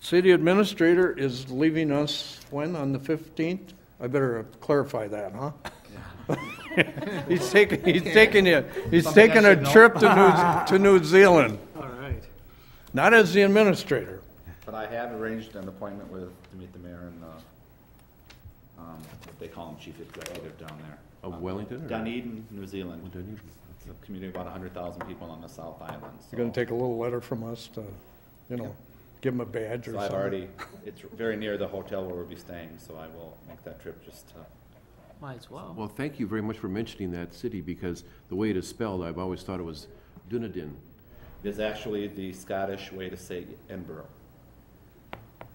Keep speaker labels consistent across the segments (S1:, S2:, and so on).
S1: City administrator is leaving us when, on the 15th? I better clarify that, huh? He's taking, he's taking a, he's
S2: Something I
S1: taking a
S2: should know.
S1: trip to New, to New Zealand,
S2: All right.
S1: not as the administrator.
S3: But I have arranged an appointment with, to meet the mayor and the, um, what they call him chief executive down there.
S4: Of Wellington or-
S3: Dunedin, New Zealand.
S4: Dunedin.
S3: It's a community of about hundred thousand people on the South Island, so.
S1: You're gonna take a little letter from us to, you know, give him a badge or
S3: So
S1: something.
S3: I've already, it's very near the hotel where we'll be staying, so I will make that trip just to,
S2: Might as well.
S4: Well, thank you very much for mentioning that city, because the way it is spelled, I've always thought it was Dunedin.
S3: There's actually the Scottish way to say Edinburgh.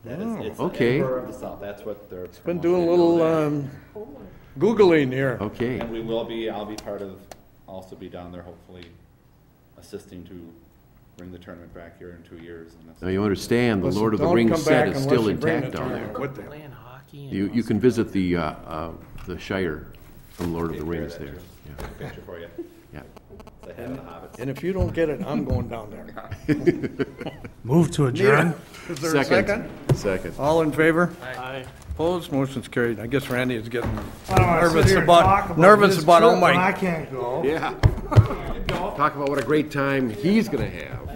S3: That is, it's
S4: okay.
S3: Edinburgh of the South, that's what they're.
S1: Oh. Been doing a
S3: promoting
S1: little,
S3: down there.
S1: um, Googling here.
S4: Okay,
S3: And we will be, I'll be part of, also be down there hopefully assisting to bring the tournament back here in two years. and that's-
S4: now you understand, the
S1: Listen,
S4: Lord of the
S1: don't
S4: Rings
S1: come
S4: set
S1: back
S4: is still
S1: unless you bring
S4: intact
S1: the
S4: down there.
S1: tournament with you.
S2: Playing hockey and.
S4: You, you can visit the, uh, uh, the Shire from Lord of the
S3: Take care
S4: Rings
S3: of that,
S4: there.
S3: too.
S4: Yeah,
S3: Picture for you.
S4: yeah.
S3: It's a head of the hobbits.
S1: And if you don't get it, I'm going down there.
S5: Move to adjourn.
S1: Is there a second?
S4: Second.
S1: All in favor?
S2: Aye.
S1: Opposed? Motion's carried. I guess Randy is getting
S5: I don't wanna sit
S1: Nervous
S5: here and
S1: about-
S5: talk about
S1: nervous
S5: this
S1: about, oh
S5: trip when
S1: my-
S5: I can't go.
S4: Yeah. Talk about what a great time he's gonna have.